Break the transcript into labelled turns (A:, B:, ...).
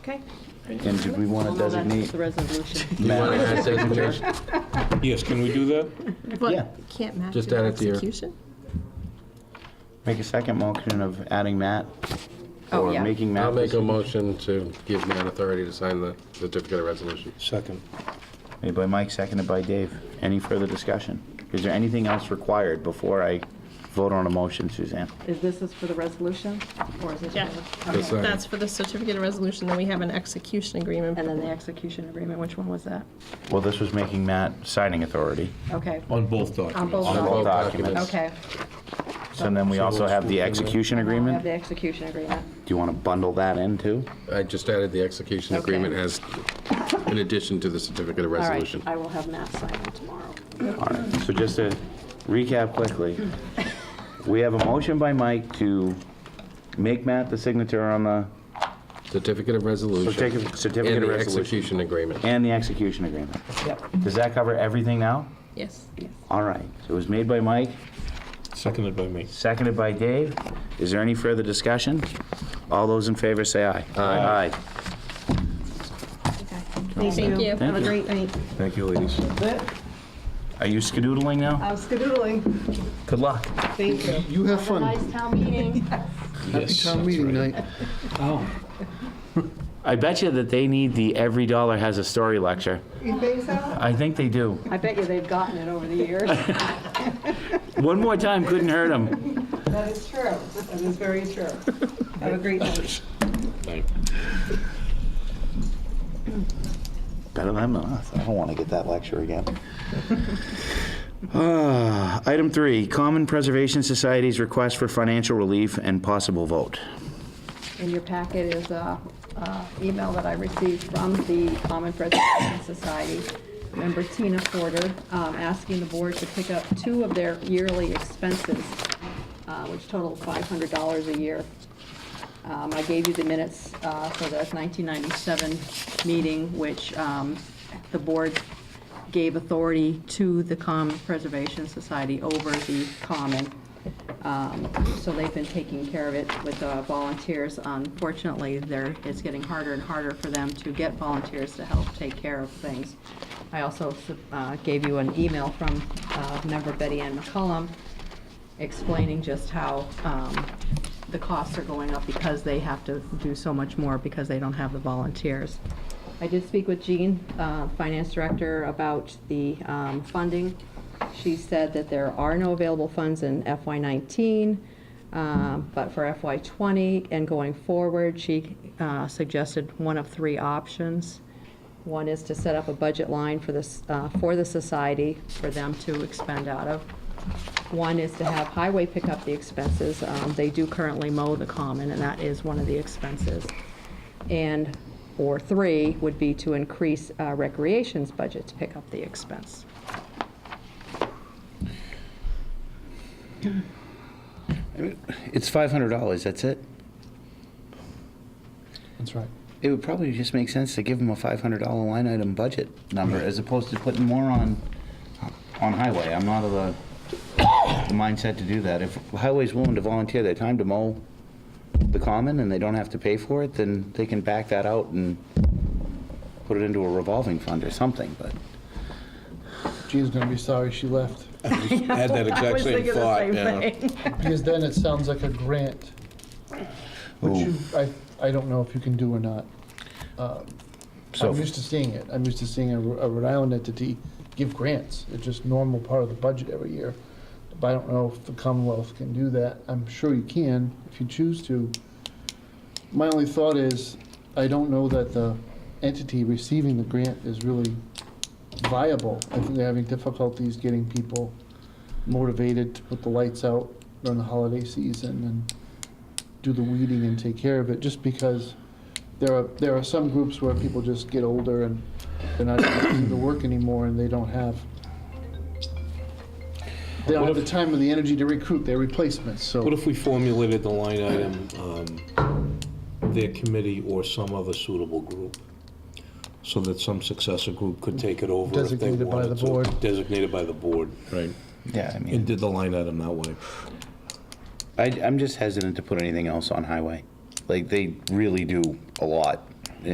A: Okay.
B: And do we want to
A: Well, no, that's
B: designate?
A: the resolution.
C: You want to add designation?
D: Yes, can we do that?
B: Yeah.
E: Can't match
C: Just
E: it in
C: add it to your-
E: execution?
B: Make a second motion of adding Matt?
E: Oh,
B: Or
E: yeah.
B: making Matt?
C: I'll make a
B: this-
C: motion to give Matt authority to sign the certificate of resolution.
D: Second.
B: Made by Mike, seconded by Dave. Any further discussion? Is there anything else required before I vote on a motion, Suzanne?
A: Is this is for the resolution, or is this? for
E: Yeah.
A: the-
C: Yes,
A: Okay.
C: sir.
E: That's for the certificate of resolution, then we have an execution agreement.
A: And then the execution agreement, which one was that?
B: Well, this was making Matt signing authority.
A: Okay,
D: On both
A: on
D: documents.
A: both
B: On
A: sides.
B: both documents.
A: Okay.
B: So then we also have the execution
A: We have
B: agreement.
A: the execution agreement.
B: Do you want to bundle that in too?
C: I just added the execution
A: Okay.
C: agreement as, in addition to the certificate of
A: All right,
C: resolution.
A: I will have Matt sign it tomorrow.
B: All right, so just to recap quickly, we have a motion by Mike to make Matt the signature on the
C: Certificate of resolution.
B: certificate certificate
C: And
B: of
C: the
B: resolution.
C: execution agreement.
B: And the execution agreement. Does that cover everything now?
E: Yes.
B: All right, so it was made by Mike,
D: Seconded by me.
B: seconded by Dave. Is there any further discussion? All those in favor say aye. Aye.
E: Thank you.
B: Thank you.
E: night.
B: Thank you, ladies. Are you skedoodling now?
F: I'm skedoodling.
B: Good luck.
F: Thank you.
G: You have fun.
F: Nice town meeting.
G: Happy town meeting night.
B: I bet you that they need the Every Dollar Has a Story lecture.
F: You think so?
B: I think they do.
A: I bet you they've gotten it over the years.
B: One more time couldn't hurt them.
F: That is true. That is very true. Have a great night.
B: Better than us. I don't want to get that lecture again. Ah, Item three, Common Preservation Society's request for financial relief and possible vote.
A: In your packet is a uh, email that I received from the Common Preservation Society, member Tina Porter, um, asking the board to pick up two of their yearly expenses, uh, which total $500 a year. Um, I gave you the minutes uh, for the 1997 meeting, which um, the board gave authority to the Common Preservation Society over the common. Um, So they've been taking care of it with uh, volunteers. Unfortunately, there, it's getting harder and harder for them to get volunteers to help take care of things. I also uh, gave you an email from uh, member Betty Ann McCollum explaining just how um, the costs are going up because they have to do so much more because they don't have the volunteers. I did speak with Jean, uh, Finance Director, about the um, funding. She said that there are no available funds in FY '19, uh, but for FY '20 and going forward, she uh, suggested one of three options. One is to set up a budget line for this, uh, for the society, for them to expend out of. One is to have highway pick up the expenses. Um, They do currently mow the common, and that is one of the expenses. And, or three, would be to increase uh, recreation's budget to pick up the expense.
B: It's $500, that's it?
G: That's right.
B: It would probably just make sense to give them a $500 line item budget number as opposed to putting more on, on highway. I'm not of the the mindset to do that. If highway's willing to volunteer their time to mow the common and they don't have to pay for it, then they can back that out and put it into a revolving fund or something, but.
G: Jean's gonna be sorry she left.
D: I had that exact same thought, yeah.
G: Because then it sounds like a grant, which you, I, I don't know if you can do or not. Uh,
B: So-
G: I'm used to seeing it. I'm used to seeing a a Rhode Island entity give grants. It's just normal part of the budget every year. But I don't know if the Commonwealth can do that. I'm sure you can if you choose to. My only thought is, I don't know that the entity receiving the grant is really viable. I think they're having difficulties getting people motivated to put the lights out during the holiday season and do the weeding and take care of it, just because there are, there are some groups where people just get older and they're not doing the work anymore and they don't have, they don't have the time or the energy to recruit their replacements, so.
D: What if we formulated the line item, um, their committee or some other suitable group? So that some successor group could take it over if they wanted to.
G: Designated by the board.
D: Designated by the board. Right.
B: Yeah, I
D: And did the line item that way.
B: I, I'm just hesitant to put anything else on highway. Like, they really do a lot